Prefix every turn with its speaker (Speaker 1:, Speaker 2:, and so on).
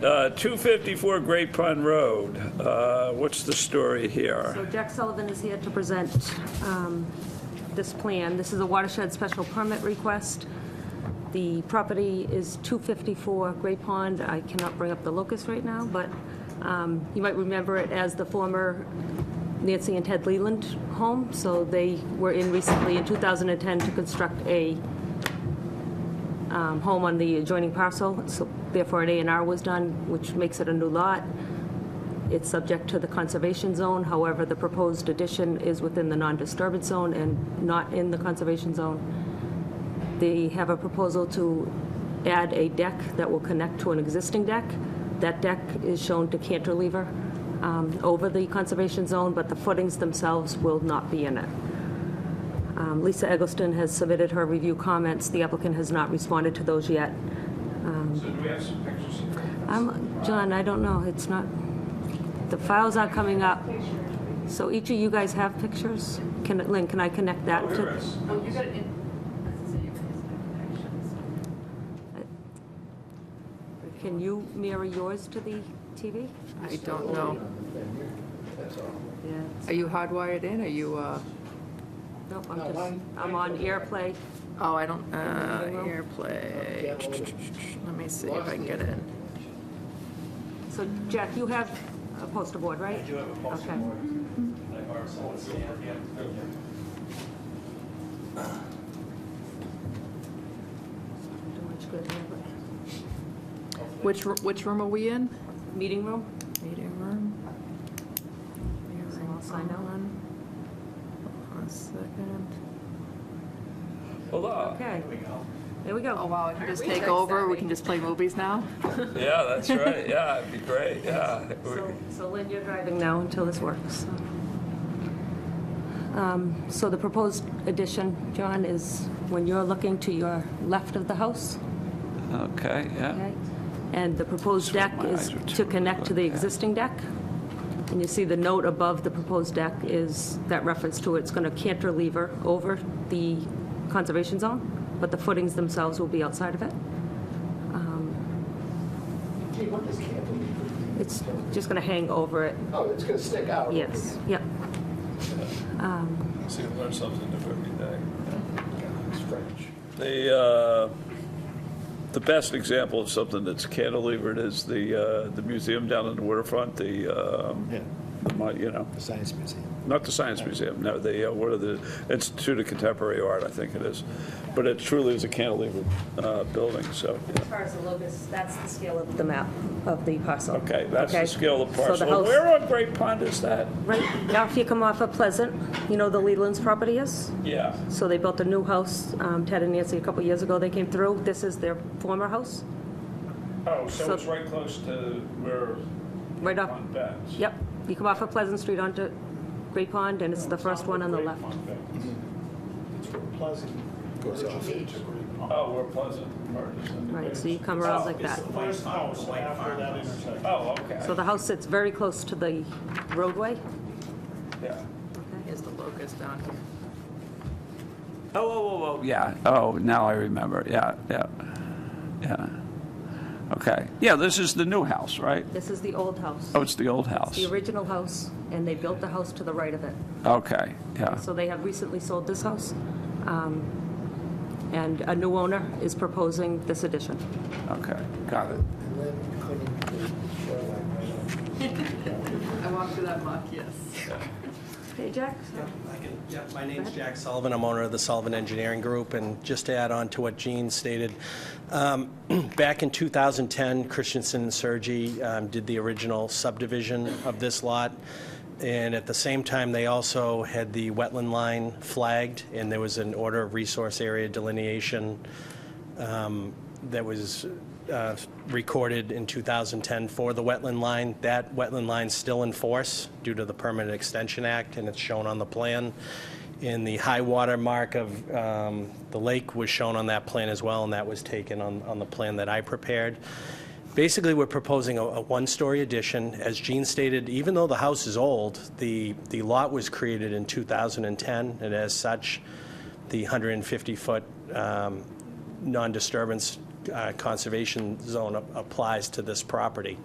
Speaker 1: Uh, 254 Great Pond Road, Uh, what's the story here?
Speaker 2: So Jack Sullivan is here to present um, this plan. This is a watershed special permit request. The property is 254 Gray Pond. I cannot bring up the locus right now, but um, you might remember it as the former Nancy and Ted Leland home. So they were in recently in 2010 to construct a um, home on the adjoining parcel. So therefore, an A and R was done, which makes it a new lot. It's subject to the conservation zone, however, the proposed addition is within the non-disturbance zone and not in the conservation zone. They have a proposal to add a deck that will connect to an existing deck. That deck is shown to cantilever um, over the conservation zone, but the footings themselves will not be in it. Um, Lisa Eggleston has submitted her review comments. The applicant has not responded to those yet.
Speaker 3: So do we have some pictures here?
Speaker 2: I'm, John, I don't know, it's not, the files aren't coming up. So each of you guys have pictures? Can, Lynn, can I connect that
Speaker 3: Here
Speaker 2: to?
Speaker 3: is.
Speaker 4: Well, you got it in, as I say, you got his connections.
Speaker 2: Can you mirror yours to the TV?
Speaker 4: I don't know. Are you hardwired in? Are you, uh,
Speaker 2: Nope, I'm just, I'm on AirPlay.
Speaker 4: oh, I don't, uh, AirPlay. Let me see if I can get in.
Speaker 2: So Jack, you have a poster board, right? I do have a poster board.
Speaker 4: Which, r- which room are we in?
Speaker 2: Meeting room?
Speaker 4: Meeting room.
Speaker 2: So I'll sign out.
Speaker 4: One second.
Speaker 1: Hello?
Speaker 2: Okay. There we
Speaker 4: Oh,
Speaker 2: go.
Speaker 4: wow, I can just take over? We can just play movies now?
Speaker 1: Yeah, that's right, yeah, it'd be great, yeah.
Speaker 2: So so Lynn, you're driving now until this works. Um, So the proposed addition, John, is when you're looking to your left of the house,
Speaker 1: Okay, yeah.
Speaker 2: okay? And the proposed deck
Speaker 1: my
Speaker 2: is
Speaker 1: eyes are
Speaker 2: to
Speaker 1: too
Speaker 2: connect to the
Speaker 1: quick, yeah.
Speaker 2: existing deck. And you see the note above the proposed deck is, that reference to it's going to cantilever over the conservation zone, but the footings themselves will be outside of it.
Speaker 5: Gee, what is cantilever?
Speaker 2: It's just going to hang over it,
Speaker 5: Oh, it's gonna stick out.
Speaker 2: yes, yep.
Speaker 3: See, we learn something new every day.
Speaker 5: It's French.
Speaker 1: The, uh, the best example of something that's cantilevered is the, uh, the museum down in the waterfront, the, um,
Speaker 6: Yeah.
Speaker 1: the mon- you know,
Speaker 6: the Science Museum.
Speaker 1: not the Science Museum, no, the, uh, what are the, Institute of Contemporary Art, I think it is. But it truly is a cantilevered uh, building, so, yeah.
Speaker 2: As far as the locus, that's the scale of the map of the parcel.
Speaker 1: okay, that's the
Speaker 2: Okay?
Speaker 1: scale of
Speaker 2: So the
Speaker 1: parcel.
Speaker 2: house-
Speaker 1: Where on Great Pond is that?
Speaker 2: Right, now if you come off of Pleasant, you know the Leland's property is?
Speaker 1: Yeah.
Speaker 2: So they built a new house, um, Ted and Nancy, a couple years ago, they came through. This is their former house,
Speaker 1: Oh, so
Speaker 2: So-
Speaker 1: it's right close to where
Speaker 2: right off,
Speaker 1: on Ben's.
Speaker 2: yep. You come off of Pleasant Street onto Great Pond, and it's the first one on the left.
Speaker 5: It's from Pleasant. Goes off.
Speaker 1: Oh, where Pleasant Park is.
Speaker 2: Right, so you come around like that.
Speaker 7: First house after that intersection.
Speaker 1: Oh, okay,
Speaker 2: So the house sits very close to the roadway.
Speaker 1: yeah.
Speaker 4: Here's the locust down here.
Speaker 1: Oh, oh, oh, oh, yeah. Oh, now I remember. Yeah, yeah, yeah. Okay. Yeah, this is the new house, right?
Speaker 2: This is the old house.
Speaker 1: Oh, it's the old
Speaker 2: It's
Speaker 1: house.
Speaker 2: the original house, and they built the house to the right of it.
Speaker 1: Okay, yeah.
Speaker 2: So they have recently sold this house, um, and a new owner is proposing this addition.
Speaker 1: Okay, got it.
Speaker 5: And then couldn't the shoreline right off.
Speaker 4: I walked through that muck, yes.
Speaker 2: Hey, Jack?
Speaker 8: I can- yeah, My name's Jack Sullivan. I'm owner of the Sullivan Engineering Group, and just to add on to what Gene stated, um, back in 2010, Christensen and Sergi um, did the original subdivision of this lot, and at the same time, they also had the wetland line flagged, and there was an order of resource area delineation um, that was uh, recorded in 2010 for the wetland line. That wetland line's still in force due to the Permanent Extension Act, and it's shown on the plan. And the high water mark of um, the lake was shown on that plan as well, and that was taken on on the plan that I prepared. Basically, we're proposing a, a one-story addition. As Gene stated, even though the house is old, the, the lot was created in 2010, um, and as such, the 150-foot non-disturbance uh, conservation zone a- applies to this property.